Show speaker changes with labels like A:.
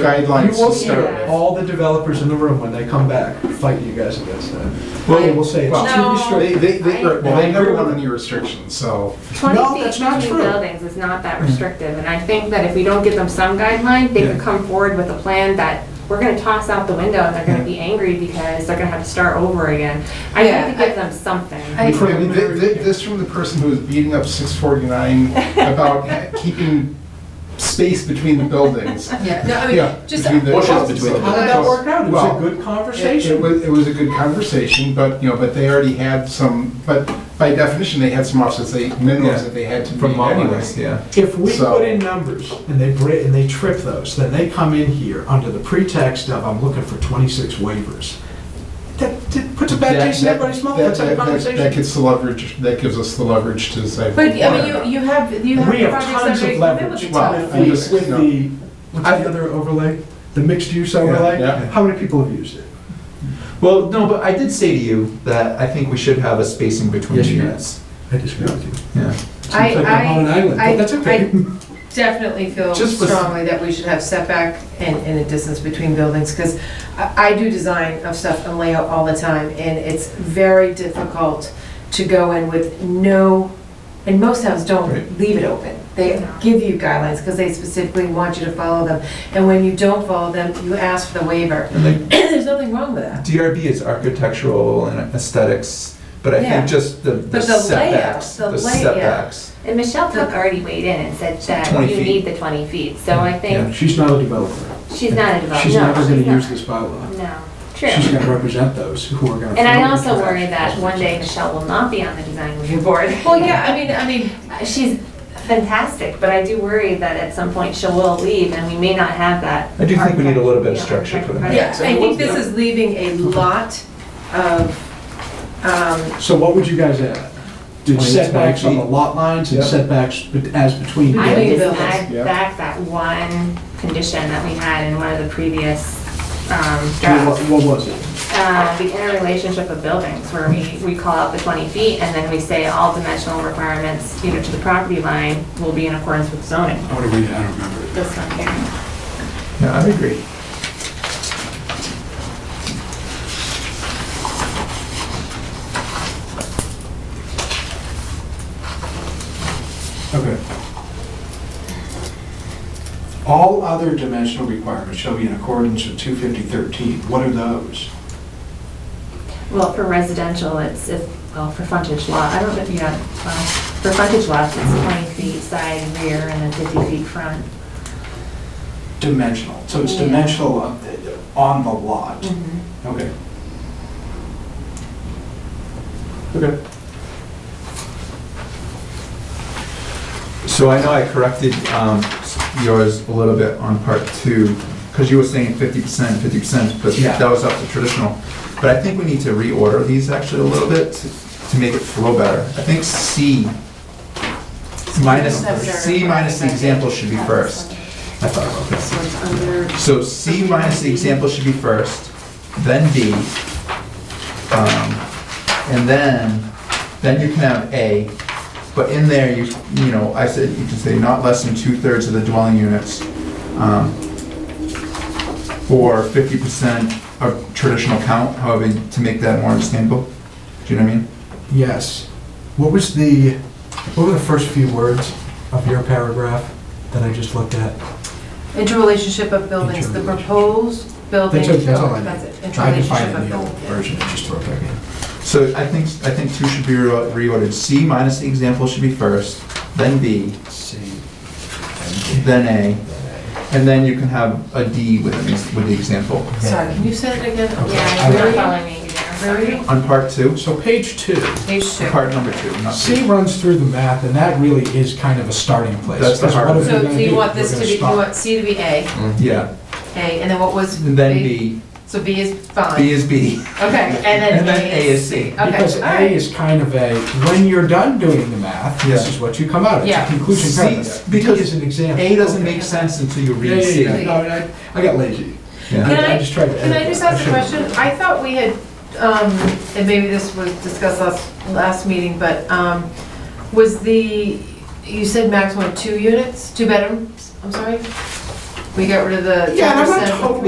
A: guidelines
B: You will
A: to
B: see
A: start with.
B: all the developers in the room when they come back fighting you guys against that. They will say it's too
C: No.
A: They,
B: restrictive.
A: they, they,
C: I-
A: well, they never want any restrictions, so.
C: 20
B: No,
C: feet
B: that's not
C: between
B: true.
C: buildings is not that restrictive, and I think that if we don't give them some guideline, they could
B: Yeah.
C: come forward with a plan that we're gonna toss out the window, and they're gonna be angry because they're gonna have to start over again. I
D: Yeah,
C: need to
D: I-
C: give them something.
D: I-
A: I mean, th- th- This from the person who was beating up 649 about ha- keeping space between the buildings.
D: Yeah, no, I
A: Yeah,
D: mean, just,
A: between the-
E: Bushes between the
B: How did that work out? It was
A: Well,
B: a good
A: It
B: conversation.
A: was, it was a good conversation, but, you know, but they already had some, but by definition, they had some offsets, they, minimums
F: Yeah.
A: that they had to
F: From
A: meet
F: my
A: anyway.
F: list, yeah.
B: If we
A: So-
B: put in numbers and they break, and they trip those, then they come in here under the pretext of, I'm looking for 26 waivers. That that puts a bad
A: That-
B: taste in
A: that-
B: everybody's mouth,
A: that-
B: that's a
A: that- that- That
B: conversation.
A: gets the leverage, that gives us the leverage to say.
D: but, I mean, you, you have, you have
B: We have
D: projects that
B: tons
D: are
B: of leverage with
D: equivalent.
A: Well,
B: the,
A: I'm just-
B: with
A: no.
B: the, what's
F: I-
B: the other overlay? The mixed-use overlay?
A: yeah.
B: How many people have used it?
F: Well, no, but I did say to you that I think we should have a spacing between
B: Yes, you did.
F: units.
B: I disagree with you.
F: Yeah.
D: I-
B: Seems like I'm on an island,
D: I-
B: but that's
D: I-
B: okay.
D: Definitely feel
F: Just with-
D: strongly that we should have setback and, and a distance between buildings, because I, I do design of stuff and layout all the time, and it's very difficult to go in with no, and most towns don't
F: Right.
D: leave it open. They
C: No.
D: give you guidelines, because they specifically want you to follow them, and when you don't follow them, you ask for the waiver.
F: And like
D: There's nothing wrong with that.
F: DRB is architectural and aesthetics, but I
D: Yeah.
F: think just the, the
D: But the layout,
F: setbacks,
D: the
F: the
D: layout.
F: setbacks.
C: And Michelle Cook already weighed in and said that
F: 20
C: you
F: feet.
C: need the 20 feet, so I think
B: She's not a developer.
C: she's not a developer.
B: She's
C: No,
B: never gonna
C: she's not.
B: use this bylaw.
C: No, true.
B: She's gonna represent those who are gonna.
C: And I
B: feel
C: also
B: the
C: worry
B: trash.
C: that one day Michelle will not be on the design review board.
D: Well, yeah, I mean, I mean,
C: She's fantastic, but I do worry that at some point she will leave and we may not have that.
F: I do think we need a little bit of
C: architect-
F: structure for the
C: architect-
D: yeah, I think this is leaving a lot of, um,
B: So what would you guys add? Do
F: Twenty,
B: setbacks on
F: twenty
B: the
F: feet.
B: lot lines and
F: Yeah.
B: setbacks bet- as between
C: I
B: buildings?
C: would
D: Yeah.
C: just add
A: Yeah.
C: back that one condition that we had in one of the previous um, drafts.
B: What what was it?
C: Uh, The interrelationship of buildings, where we, we call out the 20 feet and then we say all dimensional requirements, you know, to the property line will be in accordance with zoning.
B: What do we, I don't remember.
C: This one here.
F: Yeah, I agree.
G: Okay. All other dimensional requirements shall be in accordance with 25013. What are those?
C: Well, for residential, it's, if, well, for frontage lot, I don't know if you have, well, for frontage lots, it's 20 feet side rear and then 50 feet front.
G: Dimensional, so it's
C: Yeah.
G: dimensional on the- on the lot. Okay.
F: Okay. So I know I corrected um, yours a little bit on part two, because you were saying fifty percent, fifty percent, but
G: Yeah.
F: that was up to traditional. But I think we need to reorder these actually a little bit to to make it flow better. I think C minus, C minus the example should be first. I thought about this.
D: so it's under
F: So C minus the example should be first, then D, um, and then, then you can have A. But in there, you, you know, I said, you can say not less than two-thirds of the dwelling units, um, or fifty percent of traditional count, however, to make that more understandable. Do you know what I mean?
B: Yes. What was the, what were the first few words of your paragraph that I just looked at?
D: interrelationship of buildings, the proposed building.
B: That's okay, that's all I need.
D: That's it,
B: I can find
D: interrelationship
B: it
D: of
B: in the old
D: buildings.
B: version and just throw it back in.
F: So I think, I think two should be re- reordered. C minus the example should be first, then B, then A, and then you can have a D with, with the example.
D: Sorry, can you say it again?
C: Yeah, you're
D: Where are
C: following me there.
D: you? Where are you?
F: On part two,
B: So page two,
D: Page two.
F: part number two, not
B: C
F: three.
B: runs through the math, and that really is kind of a starting place.
F: That's the
B: Because what
F: hard-
B: if you're
D: So
B: gonna
D: do you want
B: We're
D: this to
B: gonna
D: be, you
B: stop.
D: want C to be A,
F: Yeah,
D: A, and then what was?
F: and then B,
D: So B is
F: B
D: fine.
F: is B,
D: Okay, and
F: and
D: then A is.
F: C.
D: Okay,
B: Because
D: all
B: A
D: right.
B: is kind of a, when you're done doing the math, this
F: Yeah.
B: is what you come out, it's a
D: Yeah.
B: conclusion
F: See,
B: paragraph.
F: because
B: D is an example.
F: A doesn't make sense until you
B: Yeah,
F: read C.
B: yeah, yeah, no, I, I got lazy.
F: Yeah.
D: Can I-
B: just tried to
D: Can I
B: edit
D: just
B: that.
D: ask a
B: should've
D: question?
B: done that.
D: I thought we had, um, and maybe this was discussed last, last meeting, but, um, was the, you said maximum of two units, two bedrooms, I'm sorry?
H: We got rid of the.
D: Yeah, and I'm
H: 10%
D: not totally